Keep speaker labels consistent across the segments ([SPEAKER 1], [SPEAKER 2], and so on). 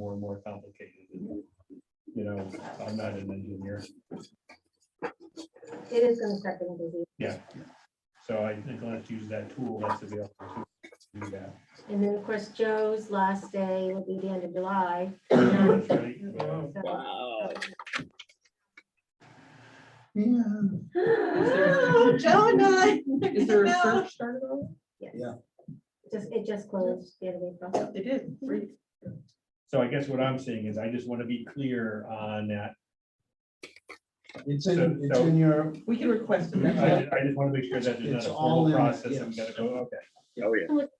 [SPEAKER 1] more complicated. You know, I'm not an engineer,
[SPEAKER 2] It is gonna start getting busy,
[SPEAKER 1] so I think let's use that tool that's available to do that.
[SPEAKER 2] and then, of course, Joe's last day will be the end of July.
[SPEAKER 1] That's right, yeah.
[SPEAKER 2] So- um,
[SPEAKER 3] Wow.
[SPEAKER 4] Oh, Joe and I.
[SPEAKER 5] Is there a
[SPEAKER 4] No.
[SPEAKER 5] search started on?
[SPEAKER 2] Yes.
[SPEAKER 6] Yeah.
[SPEAKER 2] Just, it just closed the end of April.
[SPEAKER 5] it? It did, free.
[SPEAKER 1] So I guess what I'm saying is I just want to be clear on that.
[SPEAKER 6] It's
[SPEAKER 1] So-
[SPEAKER 6] in, it's
[SPEAKER 1] so-
[SPEAKER 6] in your,
[SPEAKER 5] We can request it.
[SPEAKER 1] I
[SPEAKER 5] that's
[SPEAKER 1] just, I just want to make sure that there's not
[SPEAKER 6] It's
[SPEAKER 1] a
[SPEAKER 6] all
[SPEAKER 1] formal
[SPEAKER 6] in it,
[SPEAKER 1] process. I'm
[SPEAKER 6] yes.
[SPEAKER 1] gonna go, okay.
[SPEAKER 3] Oh,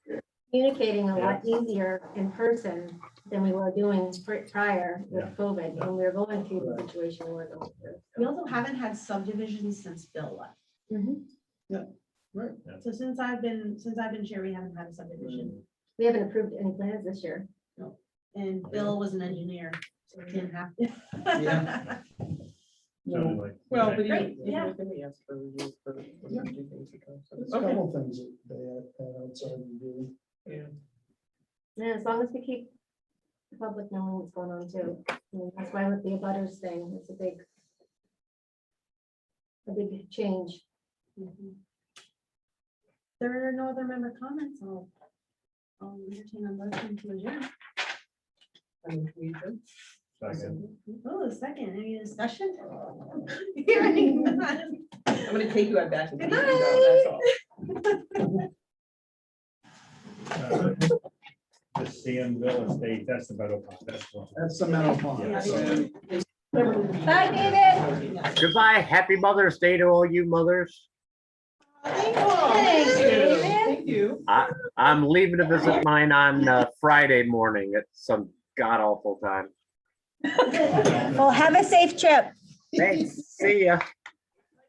[SPEAKER 3] yeah.
[SPEAKER 2] Communicating a lot easier in person than we were doing pri- prior with
[SPEAKER 1] Yeah.
[SPEAKER 2] COVID, when we were going through the situation we were going
[SPEAKER 4] So We also haven't had subdivisions since Bill left.
[SPEAKER 2] through.
[SPEAKER 4] So since I've been, since I've been chair, we haven't had a subdivision.
[SPEAKER 2] We haven't approved any plans this year.
[SPEAKER 4] And Bill was an engineer, so we didn't have to.
[SPEAKER 1] So,
[SPEAKER 6] Yeah. no,
[SPEAKER 1] like,
[SPEAKER 5] Well,
[SPEAKER 1] okay.
[SPEAKER 5] but
[SPEAKER 4] Great,
[SPEAKER 5] even,
[SPEAKER 4] yeah.
[SPEAKER 5] yeah, we asked for reviews for. for
[SPEAKER 6] Yeah.
[SPEAKER 5] do things like that, so-
[SPEAKER 6] there's a
[SPEAKER 5] Okay.
[SPEAKER 6] couple things that they had had outside of you.
[SPEAKER 5] Yeah.
[SPEAKER 2] Yeah, as long as we keep the public knowing what's going on too. I mean, That's why with the butters thing, it's a big, a big change.
[SPEAKER 4] Mhm. There are no other member comments, I'll, I'll entertain a motion to adjourn.
[SPEAKER 5] And we did.
[SPEAKER 1] Second.
[SPEAKER 4] Oh, a second, any discussion? Hearing none.
[SPEAKER 5] I'm gonna take you out back. to the
[SPEAKER 4] Good
[SPEAKER 5] meeting,
[SPEAKER 4] night.
[SPEAKER 5] that's all.
[SPEAKER 1] Uh, The Sandville Estate, that's the metal pond, that's one.
[SPEAKER 6] That's the metal pond.
[SPEAKER 4] Yeah.
[SPEAKER 6] so-
[SPEAKER 2] Bye, David.
[SPEAKER 3] Goodbye. Happy Mother's Day to all you mothers.
[SPEAKER 2] Thanks, David.
[SPEAKER 5] Thank you.
[SPEAKER 3] I'm leaving to visit mine on uh, Friday morning at some god awful time.
[SPEAKER 7] Well, have a safe trip.
[SPEAKER 3] Thanks. See ya.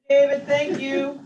[SPEAKER 5] David, thank you.